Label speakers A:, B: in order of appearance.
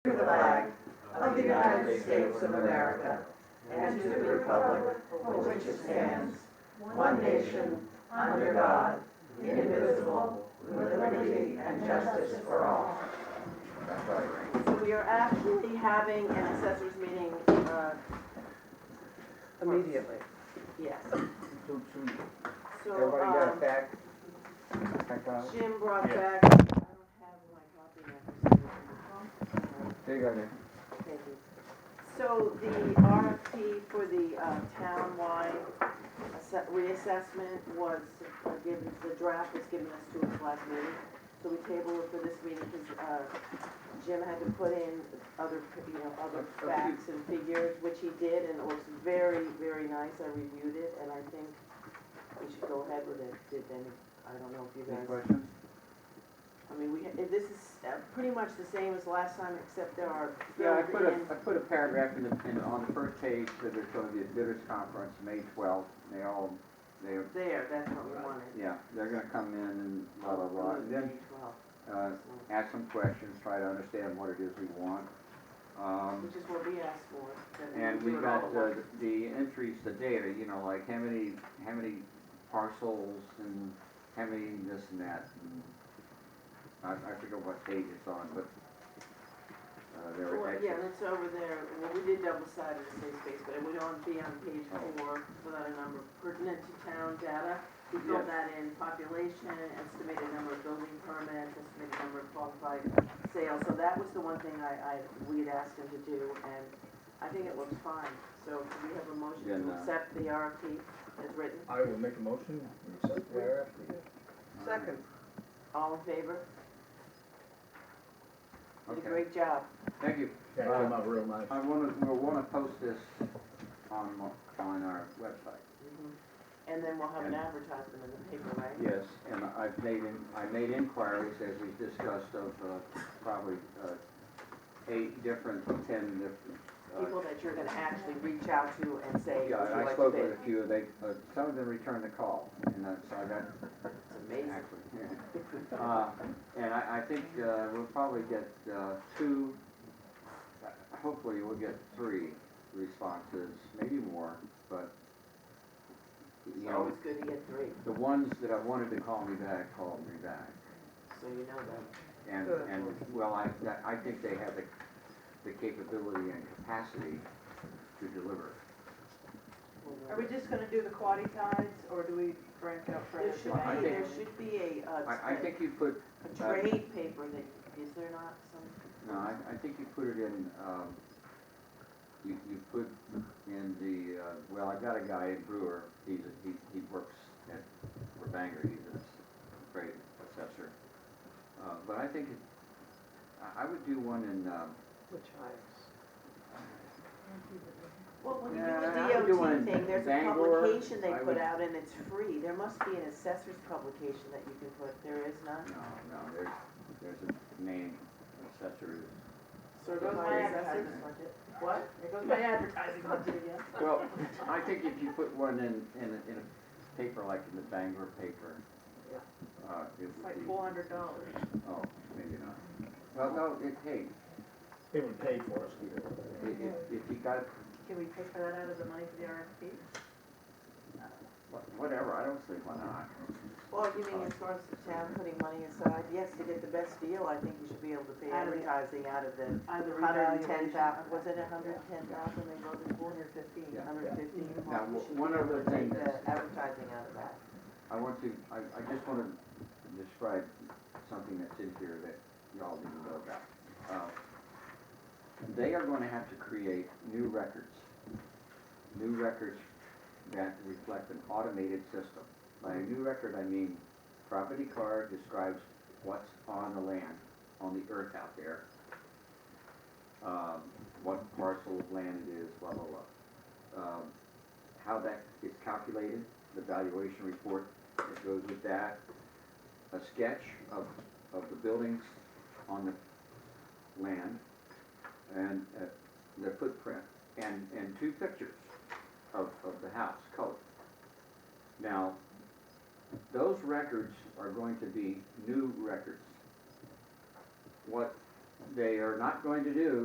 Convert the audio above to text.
A: flag of the United States of America and to the republic for which it stands, one nation, under God, indivisible, with liberty and justice for all.
B: So we are actually having an assessors meeting, uh,
C: Immediately.
B: yes.
C: Do- do-
B: So,
C: Everybody got it
B: um,
C: back? I got it.
B: Jim brought back, I don't have my copy now.
C: They got it.
B: Thank you. So the RFP for the uh, townwide asse- reassessment was uh, given, the draft was given us to us last meeting. So we tabled it for this meeting because Jim had to put in other, you know, other facts and figures, which he did, and it looks very, very nice. I reviewed it, and I think we should go ahead with it. Did any, I don't know if you
C: Any
B: guys
C: questions?
B: I mean, we, if this is uh, pretty much the same as last time, except there are
D: Yeah, I
B: filled
D: put a,
B: in-
D: I put a paragraph in the, in, on the first page that there's gonna be a bidders conference, May twelfth, they all, they,
B: there, that's what we wanted.
D: yeah, they're gonna come in and blah, blah, blah. And then,
B: Twelve,
D: uh, ask some questions, try to understand what it is we want. Um,
B: Which is what we asked for. that
D: and we
B: do it
D: got
B: all at
D: the,
B: once.
D: the entries, the data, you know, like how many, how many parcels and how many this and that. and I, I forget what page it's on, but, uh, there were
B: Well,
D: extra
B: yeah, that's over there, well, we did double sided in safe space, but it would only be on page
D: Oh.
B: four without a number pertinent to town data. We filled
D: Yes.
B: that in, population, estimated number of building permits, estimated number of qualified sales. So that was the one thing I, I, we'd asked him to do, and I think it looks fine. So do we have a motion
D: Then,
B: to
D: uh,
B: accept the RFP as written?
E: I will make a motion, we accept the RFP.
C: Second.
B: All in favor? Did a
D: Okay.
B: great job.
D: Thank you.
E: That came out real nice.
D: I wanna, we'll wanna post this on, on our website.
B: Mhm. And then we'll have
D: Mm-hmm.
B: an
D: And-
B: advertisement in the paper, right?
D: Yes. And I've made, in- I made inquiries, as we discussed, of uh, probably uh, eight different, ten different. uh,
B: people that you're gonna actually reach out to and say, would you
D: Yeah, and I
B: like to
D: spoke with
B: bid?
D: a few, they, uh, some of them returned the call, and uh, so I got
B: It's amazing.
D: Actually, yeah. Uh, And I, I think uh, we'll probably get uh, two, uh, hopefully we'll get three responses, maybe more, but, you
B: It's
D: know,
B: always good to get three,
D: the ones that I wanted to call me back, called me back.
B: so you know that.
D: And,
C: Good.
D: and, well, I, that- I think they have the, the capability and capacity to deliver.
F: Are we just gonna do the quaddy tides, or do we branch out
B: There
F: further?
B: should
D: Well, I
B: be,
D: think-
B: there should be a,
D: I, I
B: uh,
D: think uh, you put,
B: a trade paper that, is there not some?
D: no, I, I think you put it in, um, you, you put in the, uh, well, I got a guy in Brewer, he's, a- he, he works at Rebanger, he's a great assessor. Uh, but I think, it- I, I would do one in, um,
C: Which
B: Well, when
D: Yeah, I
B: you
D: would
B: do
D: do
B: a
D: one in
B: DOT thing, there's a
D: Bangor.
B: publication they
D: I
B: put
D: would-
B: out and it's free, there must be an assessor's publication that you can put, there is none?
D: no, no, there's, there's a name, assessor.
B: So
F: goes my advertisement.
B: What?
F: There goes my advertising budget again.
D: Well, I think if you put one in, in, a- in a paper like in the Bangor paper, uh, it
F: It's
D: would
F: like
D: be,
F: four hundred dollars.
D: oh, maybe not. Well, no, it, hey,
E: It would pay for us here.
D: i- if, if you got,
F: Can we pay for that out of the money for the RFP?
D: wha- whatever, I don't see why not.
B: Well, you mean as far as the town putting money aside, yes, to get the best deal, I think you should be able to pay
F: Out of the-
B: advertising out of the
F: Either
B: Hundred and ten thousand, was it a hundred and ten
D: Yeah.
B: thousand, they go to
F: Four hundred fifteen.
D: Yeah.
B: hundred and fifteen?
D: Now, w- one other thing that's-
B: The advertising out of that.
D: I want to, I, I just want to describe something that's in here that y'all didn't know about. Uh, They are going to have to create new records, new records that reflect an automated system. By a new record, I mean property card describes what's on the land, on the earth out there, um, what parcel of land it is, blah, blah, blah. Um, How that is calculated, the valuation report that goes with that, a sketch of, of the buildings on the land, and uh, their footprint, and, and two pictures of, of the house, color. Now, those records are going to be new records. What they are not going to do